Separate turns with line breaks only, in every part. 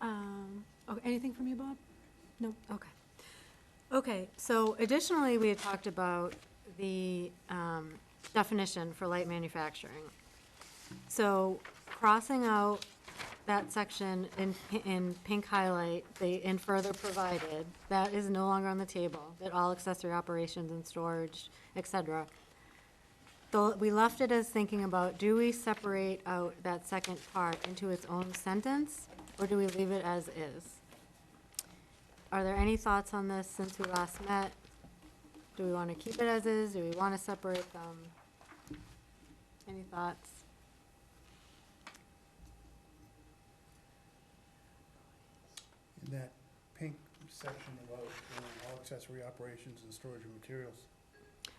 Um, Okay, anything from you, Bob? No, okay. Okay, so additionally, we had talked about the um, definition for light manufacturing. So crossing out that section in, pi- in pink highlight, the "in further provided," that is no longer on the table, that all accessory operations and storage, et cetera. Though, we left it as thinking about, do we separate out that second part into its own sentence, or do we leave it as is? Are there any thoughts on this since we last met? Do we want to keep it as is? Do we want to separate them? Any thoughts?
in that pink section about um, all accessory operations and storage of materials.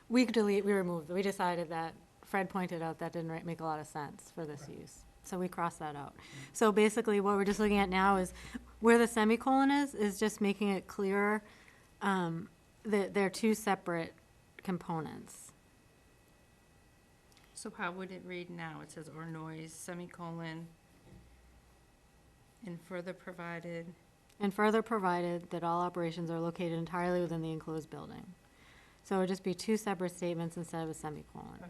We could delete, we removed, we decided that, Fred pointed out that didn't ri- make a lot of sense for this use. So we crossed that out. So basically, what we're just looking at now is where the semicolon is, is just making it clearer um, that they're two separate components.
So how would it read now? It says, or noise, semicolon, and further provided,
And further provided that all operations are located entirely within the enclosed building. So it would just be two separate statements instead of a semicolon.
okay,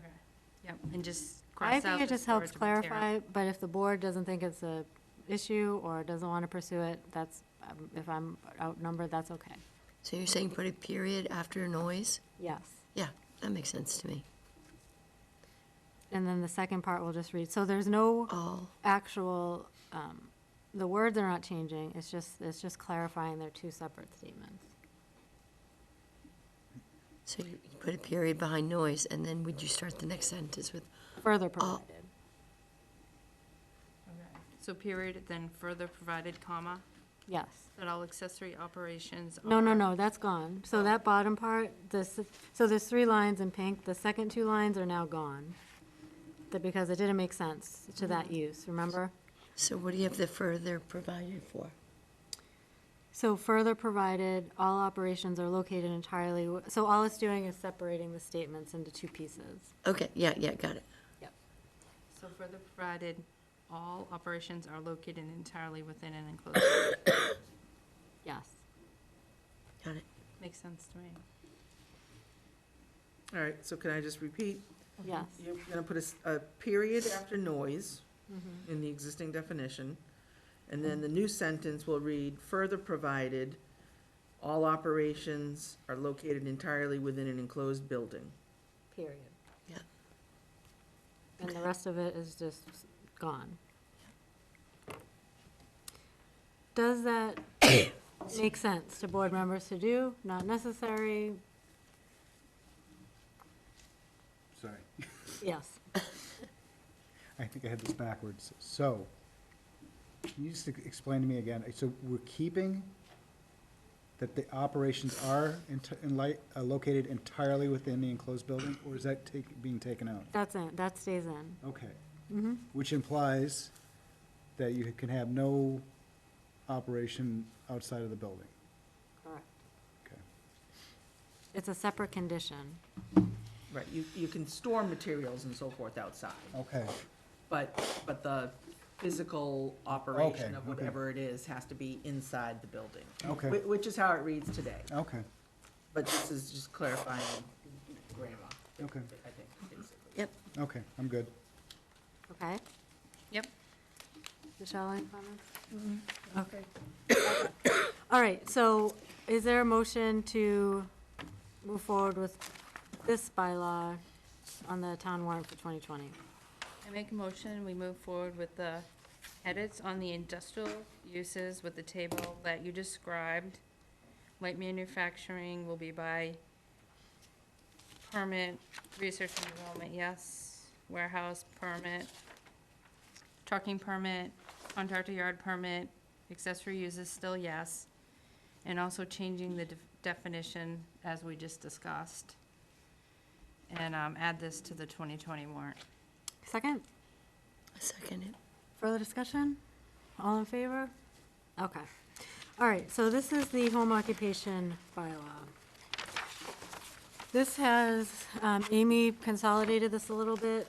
yep, and just
I
cross out
think it
the
just helps
storage of material.
clarify, but if the board doesn't think it's a issue or doesn't want to pursue it, that's, um, if I'm outnumbered, that's okay.
So you're saying put a period after noise?
Yes.
Yeah, that makes sense to me.
And then the second part we'll just read. So there's no
All,
actual, um, the words are not changing, it's just, it's just clarifying they're two separate statements.
so you you put a period behind noise, and then would you start the next sentence with,
Further provided.
Okay. So period, then further provided, comma,
Yes.
that all accessory operations.
No, no,
are-
no, that's gone. So that bottom part, this, so there's three lines in pink, the second two lines are now gone. That because it didn't make sense to that use, remember?
so what do you have the further provided for?
So further provided, all operations are located entirely, w- so all it's doing is separating the statements into two pieces.
Okay, yeah, yeah, got it.
So further provided, all operations are located entirely within an enclosed, building.
Yes.
Got it.
makes sense to me.
All right, so can I just repeat?
Yes.
You're going to put a s- a, period after noise in the existing definition, and then the new sentence will read, further provided, all operations are located entirely within an enclosed building.
Period.
Yeah.
And the rest of it is just gone. Does that make sense to board members to do? Not necessary?
Sorry,
Yes.
I think I had this backwards. So, can you just ex- explain to me again, so we're keeping that the operations are enti- in light, uh, located entirely within the enclosed building, or is that take, being taken out?
That's in, that stays in.
Okay. Which implies that you can have no operation outside of the building.
Correct.
Okay.
It's a separate condition.
Right, you, you can store materials and so forth outside,
Okay,
but, but the physical operation
Okay, okay.
of whatever it is has to be inside the building.
Okay.
Whi- Which is how it reads today,
okay,
but this is just clarifying grammar,
okay,
I think, basically.
Yep,
okay, I'm good.
Okay?
Yep.
Michelle, any comments? Okay. All right, so is there a motion to move forward with this bylaw on the town warrant for 2020?
I make a motion, we move forward with the edits on the industrial uses with the table that you described. Light manufacturing will be by permit, research and development, yes, warehouse permit, trucking permit, contractor yard permit, accessory uses still yes, and also changing the def- definition as we just discussed. And, um, add this to the twenty twenty warrant.
Second,
I second it.
further discussion? All in favor? Okay. All right, so this is the home occupation bylaw. This has, um, Amy consolidated this a little bit